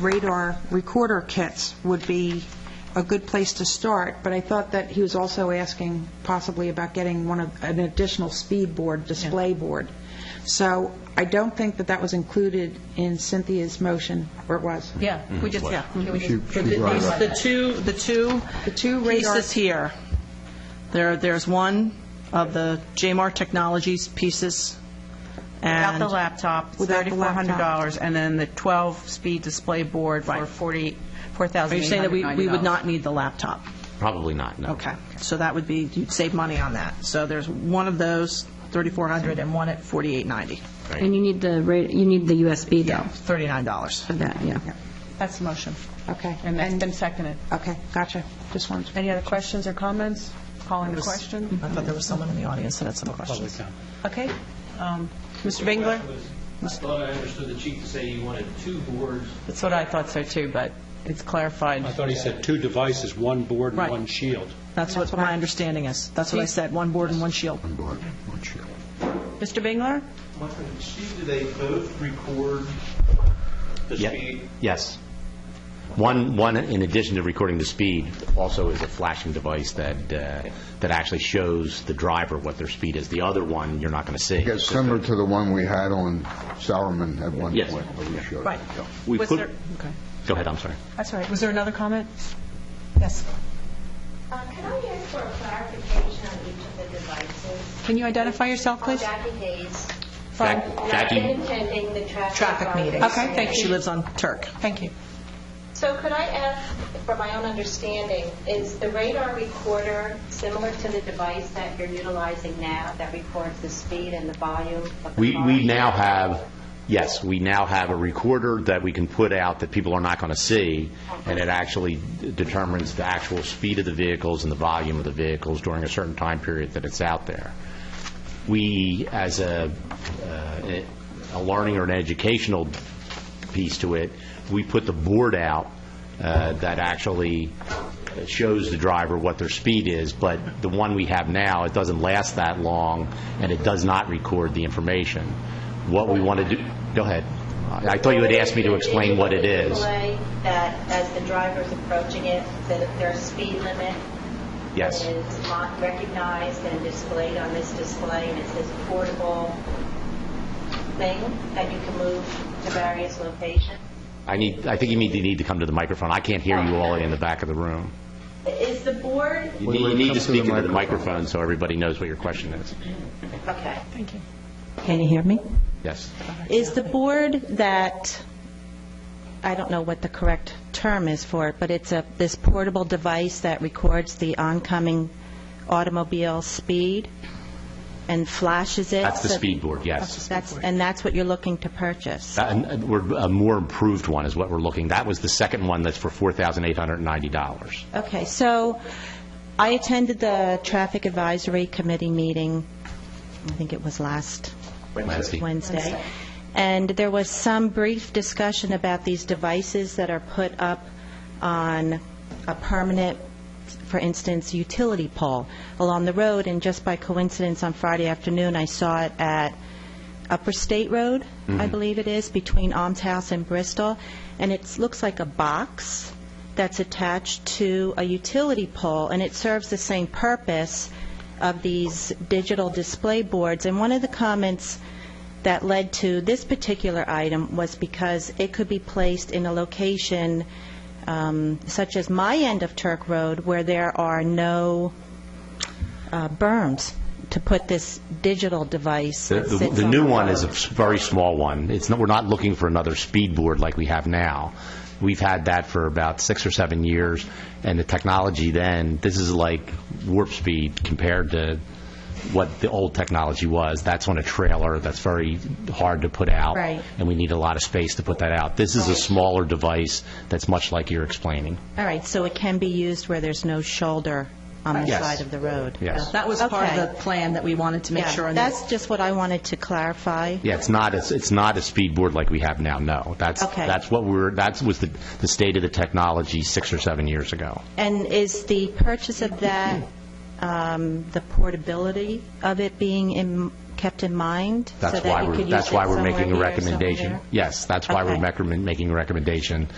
radar recorder kits would be a good place to start, but I thought that he was also asking possibly about getting one of, an additional speed board, display board. So I don't think that that was included in Cynthia's motion, or it was. Yeah, we just, yeah. She- The she brought it up. the two, the two The two radar- pieces here, there, there's one of the Jmar Technologies pieces Without and... the laptop, Without the laptop. $3,400, and then the 12-speed display board for Right. 40 Are you saying that we, we would $4,890. not need the laptop? Probably not, no. Okay, so that would be, you'd save money on that. So there's one of those, 3,400, and one at 4,890, And you need the, ra- you need the USB though, $39. for that, yeah. That's the motion. Okay. And that's been seconded. Okay, gotcha. Just wanted to... Any other questions or comments? Calling the question? I thought there was someone in the audience that had some questions. Okay. Um, Mr. Bingler? I thought I understood the chief to say he wanted two boards. That's what I thought so too, but it's clarified. I thought he said two devices, one board and Right. one shield. That's what my understanding is. That's what I said, one board and one shield. Board, one shield. Mr. Bingler? Chief, do they both record the Ye- speed? Yes. One, one, in addition to recording the speed, also is a flashing device that, uh, that actually shows the driver what their speed is. The other one, you're not going to see. Yeah, similar to the one we had on Sourman at one Yes. point. where we showed Right. it. We Was put- there- okay. Go ahead, I'm sorry. That's all right. Was there another comment? Yes. Uh, Can I ask for a clarification on each of the devices? Can you identify yourself, I'm please? Jackie Hayes, From- Jack- not Jackie, been attending the traffic... Traffic meeting. meetings. Okay, thank you. She lives on Turk. Thank you. So could I ask, for my own understanding, is the radar recorder similar to the device that you're utilizing now that records the speed and the volume of the we, car? we now have, yes, we now have a recorder that we can put out that people are not going to see, and it actually determines the actual speed of the vehicles and the volume of the vehicles during a certain time period that it's out there. We, as a, uh, a learning or an educational piece to it, we put the board out uh, that actually shows the driver what their speed is, but the one we have now, it doesn't last that long, and it does not record the information. What we want to do, go ahead. I I thought you had asked me to explain what it is. Display That as the driver's approaching it, that there's speed limit Yes. is mon- recognized and displayed on this display, and it's this portable thing that you can move to various locations. I need, I think you need to, need to come to the microphone. I can't hear you all in the back of the room. Is the board, You Wait, need- wait, come you need to to the speak into the microphone. microphone so everybody knows what your question is. okay. Can you hear me? Yes. Is the board that, I don't know what the correct term is for it, but it's a, this portable device that records the oncoming automobile speed and flashes it? That's the so- speed board, yes. That's, and that's what you're looking to purchase? That- and- and we're- A more improved one is what we're looking. That was the second one that's for $4,890. Okay, so I attended the Traffic Advisory Committee meeting, I think it was last Wednesday. Wednesday. And there was some brief discussion about these devices that are put up on a permanent, for instance, utility pole along the road. And just by coincidence, on Friday afternoon, I saw it at Upper State Road, I believe it is, between Alms House and Bristol. And it looks like a box that's attached to a utility pole, and it serves the same purpose of these digital display boards. And one of the comments that led to this particular item was because it could be placed in a location um, such as my end of Turk Road, where there are no uh, berms to put this digital device. The- that The sits the on new the one road. is a s- very small one. It's, not- we're not looking for another speed board like we have now. We've had that for about six or seven years, and the technology then, this is like warp speed compared to what the old technology was. That's on a trailer, that's very hard to put out. Right. And we need a lot of space to put that out. This is a smaller device that's much like you're explaining. All right, so it can be used where there's no shoulder on the Yes. side of the road? Yes. That was part of Okay. the plan that we wanted to make Yeah, sure. on this. That's just what I wanted to clarify. Yeah, it's not, a- it's not a speed board like we have now, no. That's, Okay. that's what we're, that was the, the state of the technology six or seven years ago. And is the purchase of that, um, the portability of it being in- kept in mind? That's so that why you we're, could that's use it why we're somewhere making a here, recommendation. somewhere? Yes, that's why we're Okay. recommend- making a recommendation